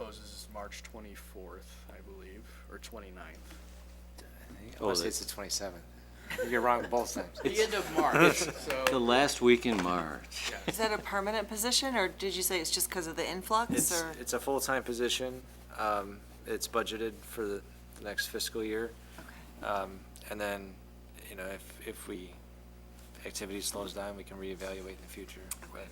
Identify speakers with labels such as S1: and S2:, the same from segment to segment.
S1: closes March twenty-fourth, I believe, or twenty-ninth.
S2: Oh,
S3: I want to say
S2: that's-
S3: it's the twenty-seventh. You're wrong both times.
S1: The end of March,
S2: The
S1: so,
S2: last week in March.
S1: yeah.
S4: Is that a permanent position, or did you say it's just because of the influx,
S3: It's,
S4: or?
S3: it's a full-time position. Um, it's budgeted for the the next fiscal year. Um, and then, you know, if, if we, activity slows down, we can reevaluate in the future. But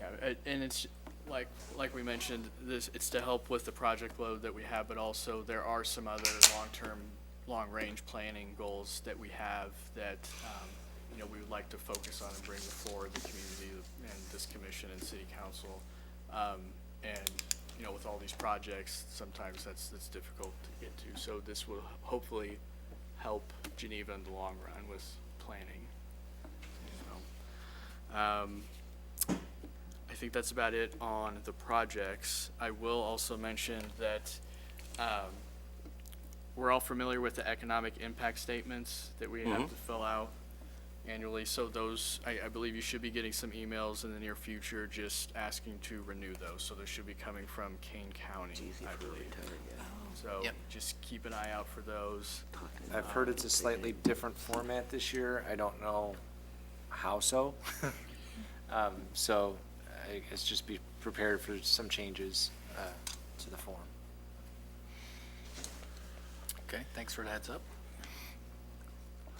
S1: Yeah, a- and it's like, like we mentioned, this, it's to help with the project load that we have, but also there are some other long-term, long-range planning goals that we have that, um, you know, we would like to focus on and bring before the community and this commission and city council. Um, and, you know, with all these projects, sometimes that's, that's difficult to get to. So this will hopefully help Geneva in the long run with planning. So, Um, I think that's about it on the projects. I will also mention that um, we're all familiar with the economic impact statements that we have to fill out annually. So those, I, I believe you should be getting some emails in the near future just asking to renew those. So those should be coming from Kane County, I believe. So
S4: Yep.
S1: just keep an eye out for those.
S3: I've heard it's a slightly different format this year. I don't know how so. Um, so I guess just be prepared for some changes, uh, to the form.
S5: Okay, thanks for the heads up.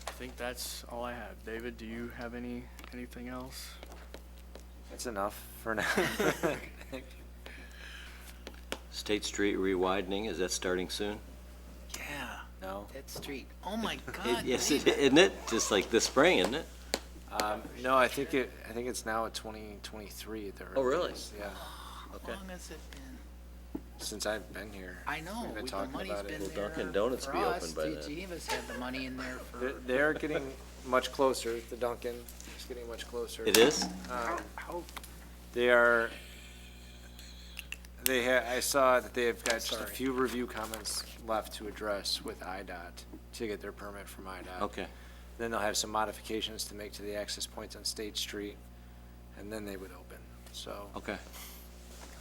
S1: I think that's all I have. David, do you have any, anything else?
S3: That's enough for now.
S2: State Street rewidening, is that starting soon?
S5: Yeah,
S3: No?
S5: that street. Oh my
S2: It-
S5: God.
S2: Yes, it-
S5: David.
S2: isn't it? Just like this spring, isn't it?
S3: Um, no, I think it, I think it's now at twenty twenty-three at the
S2: Oh, really?
S3: earliest, Yeah,
S5: How
S2: Okay.
S5: long has it been?
S3: since I've been here.
S5: I know,
S3: We've been
S5: we- the
S3: talking
S5: money's
S3: about
S5: been
S3: it.
S5: there.
S2: Will Dunkin' Donuts
S5: for
S2: be
S5: us.
S2: open by
S5: Dude,
S2: then?
S5: Geneva's had the money in there
S3: They're,
S5: for.
S3: they're getting much closer, the Duncan is getting much closer.
S2: It is?
S3: Um,
S5: How- how-
S3: They are, they ha, I saw that they have got just a
S1: Sorry.
S3: few review comments left to address with IDOT to get their permit from IDOT.
S2: Okay.
S3: Then they'll have some modifications to make to the access points on State Street, and then they would open, so
S2: Okay.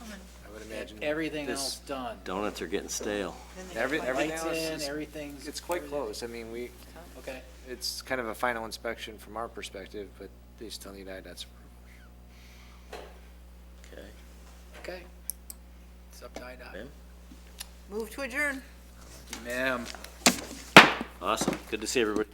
S3: I would imagine.
S5: E, Everything
S3: this-
S5: else done.
S2: Donuts are getting stale.
S3: Every- everything
S5: Lights
S3: else
S5: in,
S3: is-
S5: everything's.
S3: It's quite
S5: everything-
S3: close, I mean, we,
S5: Okay,
S3: it's kind of a final inspection from our perspective, but they still need IDOT's approval.
S2: Okay.
S5: okay. It's up to IDOT.
S2: Ma'am?
S4: Move to adjourn.
S5: Ma'am.
S2: Awesome. Good to see everybody.